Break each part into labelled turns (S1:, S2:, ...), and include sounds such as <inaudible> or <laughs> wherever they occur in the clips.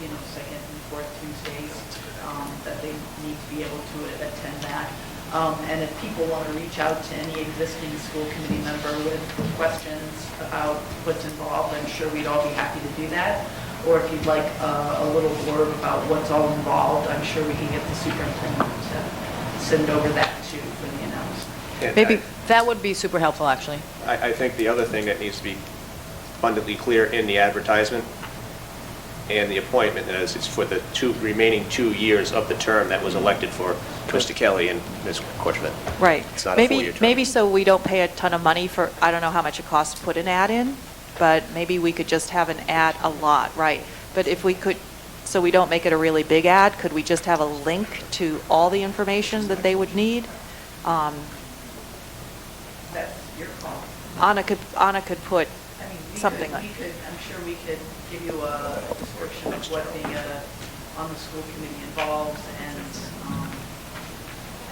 S1: you know, second and fourth Tuesdays, um, that they need to be able to attend that. Um, And if people want to reach out to any existing school committee member with questions about what's involved, I'm sure we'd all be happy to do that. Or if you'd like uh, a little blurb about what's all involved, I'm sure we can get the superintendent to send over that too for the announcement.
S2: And
S3: Maybe, that would be super helpful, actually.
S2: I, I think the other thing that needs to be abundantly clear in the advertisement and the appointment is, it's for the two, remaining two years of the term that was elected for Mr. Kelly and Ms. Corchman.
S3: Right.
S2: It's not a
S3: Maybe,
S2: four-year term.
S3: maybe so we don't pay a ton of money for, I don't know how much it costs to put an ad in, but maybe we could just have an ad a lot, right? But if we could, so we don't make it a really big ad, could we just have a link to all the information that they would need? Um,
S1: That's your call.
S3: Anna could, Anna could put
S1: I mean, we could-
S3: something like.
S1: We could, I'm sure we could give you a description of what the, uh, on the school committee involves and, um,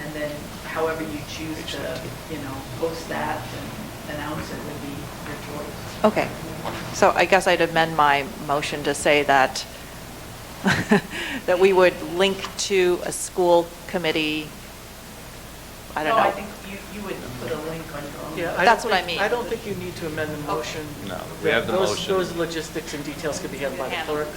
S1: and then however you choose to, you know, post that and announce it would be your choice.
S3: Okay, so I guess I'd amend my motion to say that, <laughs> that we would link to a school committee, I don't know.
S1: No, I think you, you would put a link on your own.
S4: Yeah, I don't
S3: That's what
S4: think-
S3: I mean.
S4: I don't think you need to amend the motion.
S5: No, we have the
S4: Those-
S5: motion.
S4: Those logistics and details could be handled by the clerk.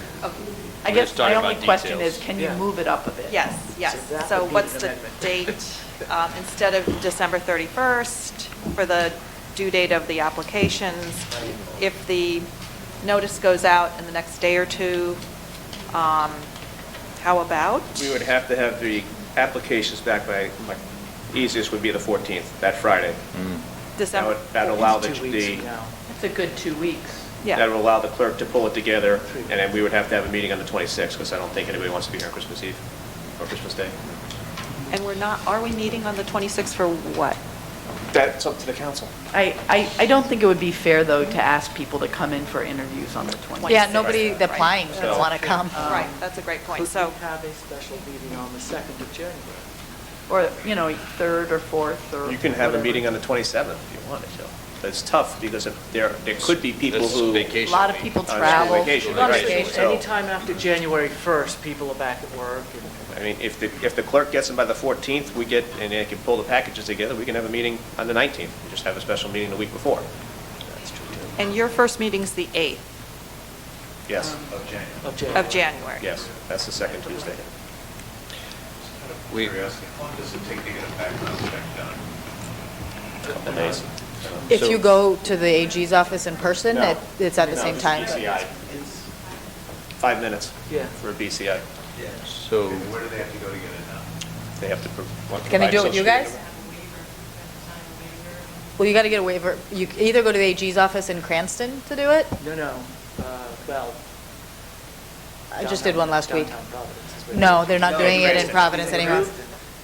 S1: I
S5: We're
S1: guess
S5: just
S1: my
S5: talking
S1: only
S5: about
S1: question
S5: details.
S1: is, can you
S4: Yeah.
S1: move it up a bit?
S3: Yes,
S4: So that
S3: yes. So
S4: would be
S3: what's
S4: an
S3: the
S4: amendment. <laughs>
S3: date, um, instead of December 31st for the due date of the applications? If the notice goes out in the next day or two, um, how about?
S2: We would have to have the applications back by, like, easiest would be the 14th, that Friday. That
S3: December,
S2: would, that'd allow the,
S4: It's Two weeks from
S2: the-
S4: now.
S1: It's a good two weeks.
S2: that
S3: yeah,
S2: would allow the clerk to pull it together, and then we would have to have a meeting on the 26th, because I don't think anybody wants to be here on Christmas Eve or Christmas Day.
S3: and we're not, are we meeting on the 26th for what?
S2: That's up to the council.
S1: I, I, I don't think it would be fair, though, to ask people to come in for interviews on the 20th.
S6: Yeah, nobody
S3: Right.
S6: applying would
S2: So-
S6: want to come.
S4: Um,
S6: Um,
S3: Right, that's a great point,
S4: Could
S3: so.
S4: we have a special meeting on the 2nd of January?
S1: Or, you know, third or fourth or.
S2: You can have a
S1: whatever.
S2: meeting on the 27th if you wanted to. But It's tough because if there, there could be people
S5: This is
S2: who.
S5: vacation
S6: A lot of
S5: week.
S6: people
S2: school
S6: travel.
S2: vacation,
S5: Right.
S2: right, so-
S4: Anytime after January 1st, people are back at work and
S2: I mean, if the, if the clerk gets them by the 14th, we get, and they can pull the packages together, we can have a meeting on the 19th. We just have a special meeting the week before.
S4: that's true too.
S3: And your first meeting's the 8th
S2: Yes,
S6: Um,
S4: Of January.
S3: of January?
S2: yes, that's the second Tuesday.
S5: We-
S7: Curiosity, how long does it take to get a background check done?
S2: Couple days.
S6: If you go to the AG's office in person,
S2: No.
S6: it- it's at the
S2: No,
S6: same
S2: just
S6: time.
S2: BCI. Five minutes.
S4: Yeah.
S2: For a BCI.
S5: So,
S7: And where do they have to go to get it done?
S2: They have to. pro- want to
S6: Can they
S2: provide social
S6: do it with you guys?
S2: security
S6: Well, you got to get a waiver. You c- either go to the AG's office in Cranston to do it.
S4: No, no, uh, well.
S6: I just did one last week.
S4: downtown Providence is where they-
S6: No, they're not
S2: No,
S6: doing it in
S2: Cranston.
S6: Providence anymore.
S2: number.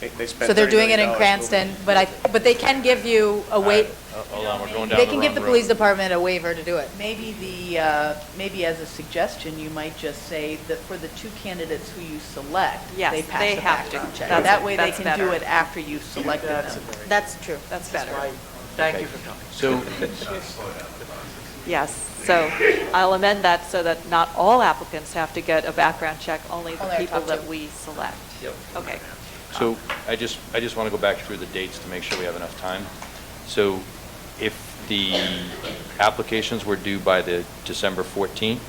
S2: They- They spent.
S6: So they're
S2: $30
S6: doing it in
S2: million
S6: Cranston, but I, but they can give you a wait,
S5: Uh, hold on, we're going down the
S6: they can give
S5: wrong
S6: the
S5: road.
S6: police department a waiver to do it.
S1: Maybe the, uh, maybe as a suggestion, you might just say that for the two candidates who you select,
S3: Yes,
S1: they pass
S3: they
S1: the
S3: have to.
S1: background check.
S3: That's-
S1: That way they
S3: that's
S1: can do
S3: better.
S1: it after you've selected
S4: That's a
S1: them.
S4: very-
S6: That's true.
S3: That's
S4: that's
S3: better.
S4: why- Thank you for coming.
S5: So,
S3: Yes, so I'll amend that so that not all applicants have to get a background check, only the
S6: Only our
S3: people
S6: top
S3: that
S6: two.
S3: we select.
S4: Yep.
S3: Okay,
S5: so I just, I just want to go back through the dates to make sure we have enough time. So if the applications were due by the December 14th,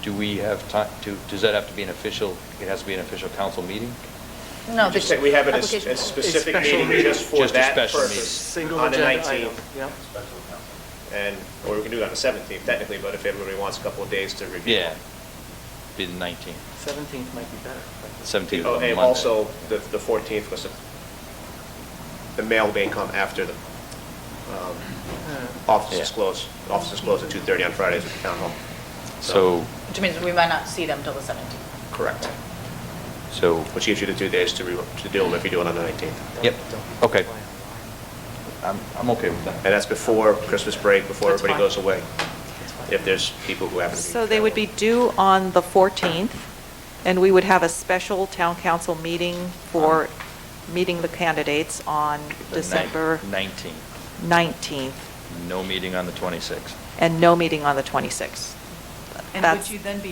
S5: do we have time, to, does that have to be an official, it has to be an official council meeting?
S6: No,
S2: Just
S6: the
S2: say we have it as
S6: application-
S2: a specific
S4: Special
S2: meeting
S4: meeting.
S2: just for
S5: Just a
S2: that
S5: special
S2: purpose
S4: Single
S2: on the
S4: agenda item.
S2: 19th.
S4: Yep.
S2: And, or we can do it on the 17th technically, but if everybody wants a couple of days to review.
S5: Yeah, be the 19th,
S4: 17th might be better.
S5: 17th is
S2: Oh,
S5: on
S2: And
S5: Monday.
S2: also, the the 14th was, the- the mail may come after the um, offices
S5: Uh, Yeah.
S2: close. Offices close at 2:30 on Fridays at the town hall.
S5: So,
S6: Which means we might not see them till the 17th.
S2: Correct.
S5: so,
S2: Which gives you the two days to re- to deal with if you do it on the 19th.
S5: Yep. Okay.
S4: That's
S5: I'm, I'm okay with that.
S2: And that's before Christmas break, before
S4: That's
S2: everybody
S4: fine.
S2: goes away,
S4: fine.
S2: if there's people who happen to be.
S3: so they would be due on the 14th, and we would have a special town council meeting for meeting the candidates on
S5: The
S3: December
S5: nine- 19th,
S3: 19th,
S5: no meeting on the 26th.
S3: and no meeting on the 26th.
S1: And
S3: That's-
S1: would you then be